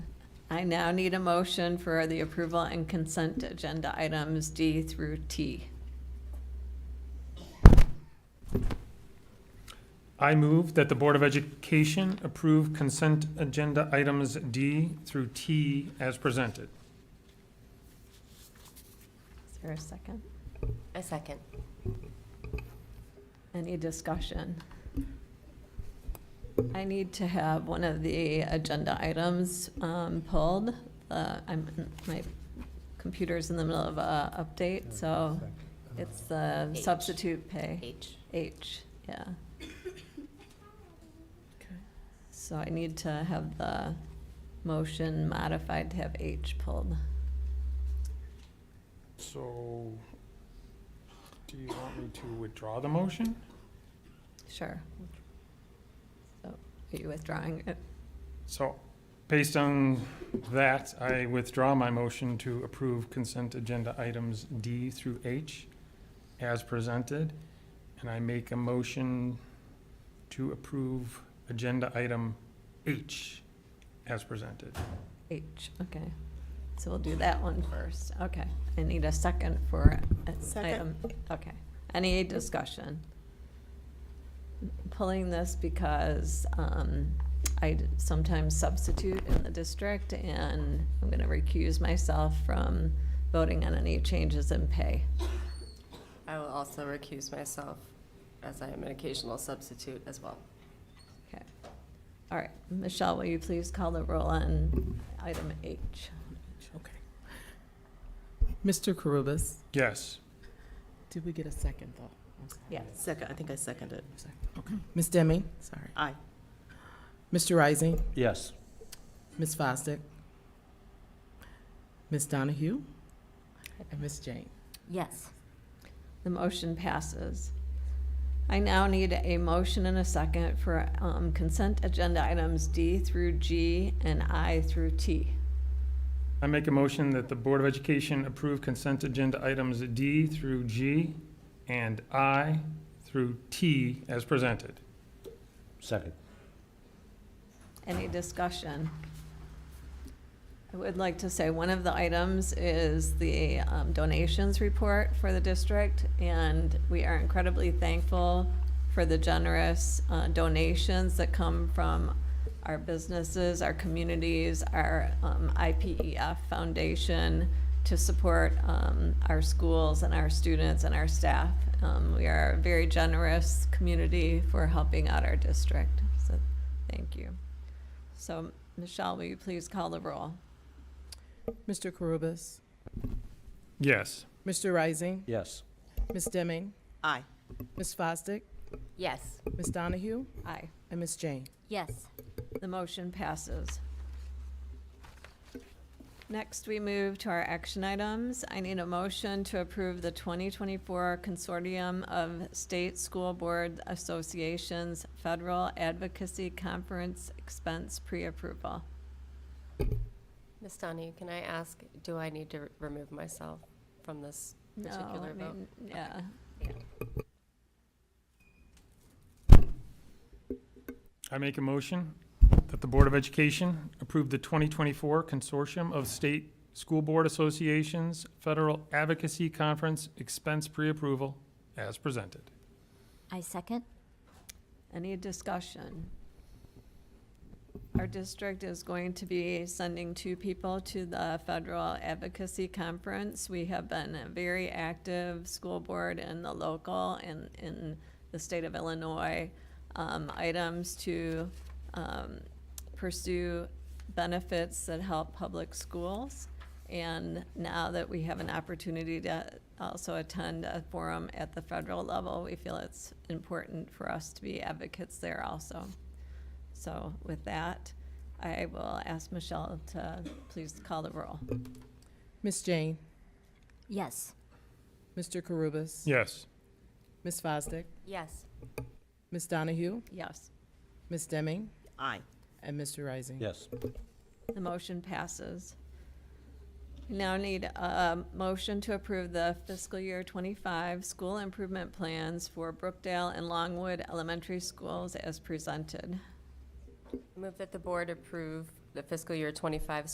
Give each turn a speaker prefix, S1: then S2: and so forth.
S1: I now need a motion for the approval and consent agenda items D through T.
S2: I move that the Board of Education approve consent agenda items D through T as presented.
S1: Is there a second?
S3: A second.
S1: Any discussion? I need to have one of the agenda items um, pulled. Uh, I'm, my computer's in the middle of a update, so uh, it's the
S3: H.
S1: substitute pay.
S3: H.
S1: H, yeah. So I need to have the motion modified to have H pulled.
S2: So, do you want me to withdraw the motion?
S1: Sure. So are you withdrawing it?
S2: So, based on that, I withdraw my motion to approve consent agenda items D through H as presented, and I make a motion to approve agenda item H as presented.
S1: H, okay. So we'll do that one first. Okay. I need a second for uh, item,
S4: Second.
S1: okay. Any discussion? Pulling this because um, I d- sometimes substitute in the district, and I'm going to recuse myself from voting on any changes in pay.
S3: I will also recuse myself as I am an occasional substitute as well.
S1: All right, Michelle, will you please call the roll on item H?
S4: Okay. Mr. Carubus,
S2: Yes.
S4: did we get a second though? I'm sorry.
S1: Yes.
S5: Second, I think I seconded.
S4: Ms. Demme, sorry.
S5: Aye.
S4: Mr. Rising,
S6: Yes.
S4: Ms. Fosdick, Ms. Donahue, and Ms. Jane.
S3: Yes.
S1: The motion passes. I now need a motion and a second for um, consent agenda items D through G and I through T.
S2: I make a motion that the Board of Education approve consent agenda items D through G and I through T as presented.
S6: Second.
S1: Any discussion? I would like to say one of the items is the um, donations report for the district, and we are incredibly thankful for the generous uh, donations that come from our businesses, our communities, our um, IPEF Foundation to support um, our schools and our students and our staff. Um, We are a very generous community for helping out our district, so thank you. So, Michelle, will you please call the roll?
S4: Mr. Carubus,
S2: Yes.
S4: Mr. Rising,
S6: Yes.
S4: Ms. Demme,
S5: Aye.
S4: Ms. Fosdick,
S3: Yes.
S4: Ms. Donahue,
S1: Aye.
S4: and Ms. Jane.
S3: Yes.
S1: The motion passes. Next, we move to our action items. I need a motion to approve the 2024 Consortium of State School Board Associations Federal Advocacy Conference Expense Pre-Approval.
S3: Ms. Donahue, can I ask, do I need to remove myself from this
S1: No,
S3: particular
S1: I
S3: vote?
S1: mean, Yeah.
S2: I make a motion that the Board of Education approve the 2024 Consortium of State School Board Associations Federal Advocacy Conference Expense Pre-Approval as presented.
S7: I second.
S1: Any discussion? Our district is going to be sending two people to the Federal Advocacy Conference. We have been a very active school board in the local and in the state of Illinois um, items to um, pursue benefits that help public schools. And now that we have an opportunity to also attend a forum at the federal level, we feel it's important for us to be advocates there also. So with that, I will ask Michelle to please call the roll.
S4: Ms. Jane,
S7: Yes.
S4: Mr. Carubus,
S2: Yes.
S4: Ms. Fosdick,
S3: Yes.
S4: Ms. Donahue,
S1: Yes,
S4: Ms. Demme,
S5: Aye.
S4: and Mr. Rising.
S6: Yes.
S1: the motion passes. We Now need a motion to approve the fiscal year twenty-five school improvement plans for Brookdale and Longwood Elementary Schools as presented.
S3: Move that the board approve the fiscal year 25